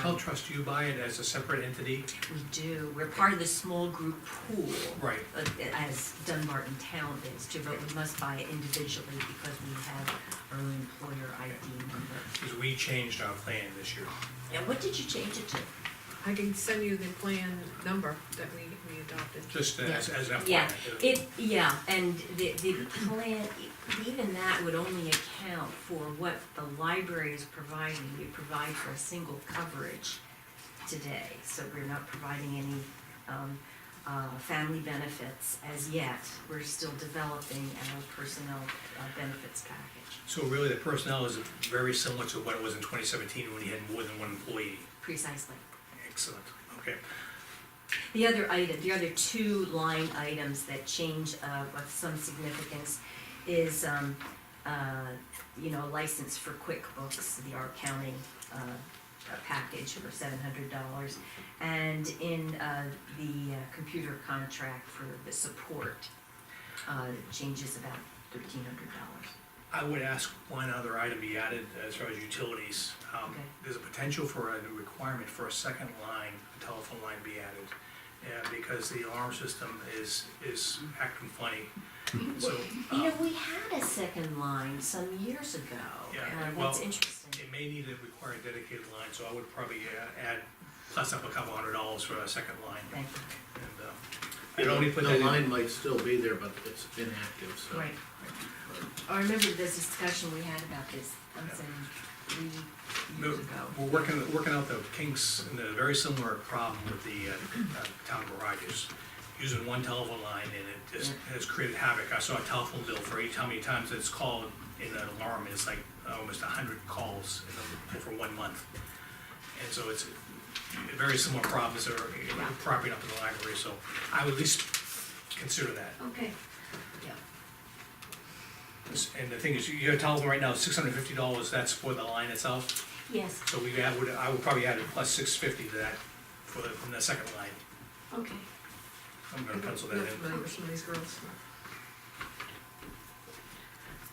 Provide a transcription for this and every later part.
Health Trust, you buy it as a separate entity? We do, we're part of the small group pool. Right. uh, As Dunbarton Town is too, but we must buy it individually because we have our own employer ID number. Because we changed our plan this year. And what did you change it to? I can send you the plan number that we, we adopted. Just as, as an FYI. Yeah, it, yeah, and the, the plan, even that would only account for what the library is providing. We provide for a single coverage today, so we're not providing any, um, uh, family benefits as yet. We're still developing our personnel uh, benefits package, So really, the personnel is very similar to what it was in twenty seventeen when you had more than one employee. precisely. Excellent, okay. The other item, the other two line items that change uh, of some significance is, um, uh, you know, license for QuickBooks, the R County uh, uh, package for seven hundred dollars. And in uh, the uh, computer contract for the support, uh, changes about thirteen hundred dollars. I would ask one other item be added as far as utilities. Um, Okay. There's a potential for a requirement for a second line, a telephone line be added. Yeah, because the alarm system is, is acting funny. So, Mm-hmm. You um, know, we had a second line some years ago. Yeah, uh, well, That's interesting. it may need to require a dedicated line, so I would probably uh, add, plus up a couple hundred dollars for a second line. Thank you. And, uh, I The don't only put that in- line might still be there, but it's inactive, so. Right. Oh, I remember this discussion we had about this, I'm saying, three years No, ago. We're working, working out the kinks, and the very similar problem with the uh, uh, town garages. Using one telephone line and it just has created havoc. I saw a telephone bill for each, how many times it's called in an alarm, it's like almost a hundred calls in the- for one month. And so it's a very similar problems that are you know, cropping up in the library, so I would at least consider that. Okay, yeah, And the thing is, your telephone right now is six hundred and fifty dollars, that's for the line itself? yes, So we add, would, I would probably add a plus six fifty to that for the, from the second line. okay. I'm gonna pencil that Not in. familiar with some of these girls.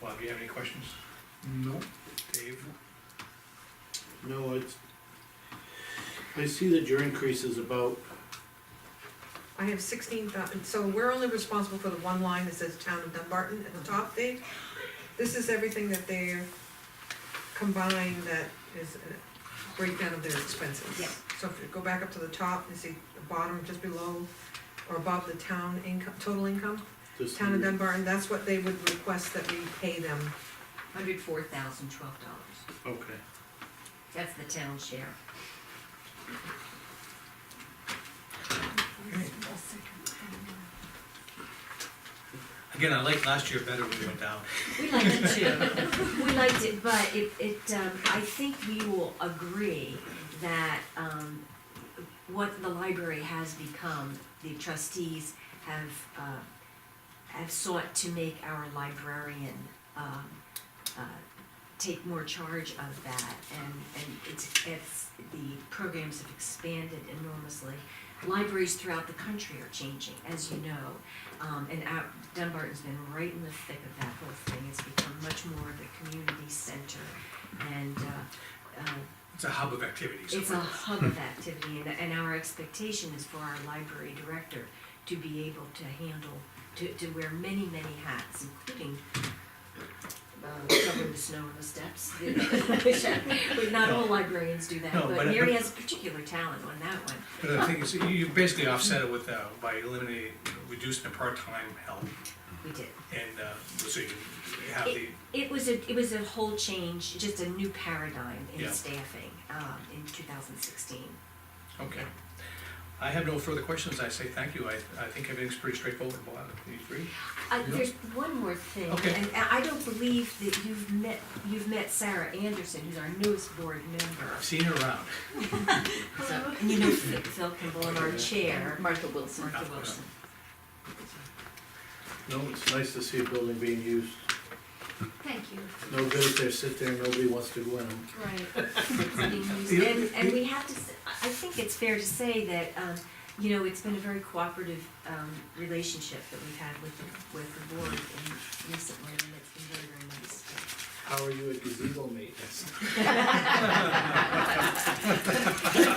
Bob, do you have any questions? No, Dave? no, it's, I see that your increase is about, I have sixteen thousand, so we're only responsible for the one line that says town of Dunbarton at the top, Dave. This is everything that they're combined that is a breakdown of their expenses. Yeah. So if you go back up to the top and see the bottom, just below or above the town income, total income, this town of year, Dunbarton, that's what they would request that we pay them. Hundred four thousand twelve dollars, okay. that's the town share. Again, I liked last year better when we went down. We liked it too, we liked it, but it, it, um, I think we will agree that, um, what the library has become, the trustees have, uh, have sought to make our librarian, um, uh, take more charge of that, and, and it's, it's, the programs have expanded enormously. Libraries throughout the country are changing, as you know, um, and out, Dunbarton's been right in the thick of that whole thing, it's become much more of a community center, and, uh, uh, It's a hub of activities. it's a hub of activity, and, and our expectation is for our library director to be able to handle, to, to wear many, many hats, including uh, covering the snow on the steps. But Not all librarians do that, No, but but- Mary but- has a particular talent on that one. But the thing is, you- you basically offset it with, uh, by eliminating, reducing the part-time help We did. and, uh, so you can have the, It was a, it was a whole change, just a new paradigm in Yeah. staffing, um, in two thousand sixteen. okay. I have no further questions. I say thank you. I, I think everything's pretty straightforward, Bob. Do you agree? Uh, Yeah. there's one more thing, Okay. and I I don't believe that you've met, you've met Sarah Anderson, who's our newest board member. I've seen her around. So, and you know Phil Phil Kimball and our chair, Martha Wilson. Martha Wilson. No, it's nice to see a building being used. Thank you. No good if they sit there and nobody wants to go in them. Right. And, and we have to, s- I I think it's fair to say that, um, you know, it's been a very cooperative, um, relationship that we've had with, the- with the board in recently, and it's been very, very nice. how are you a gazebo maintenance?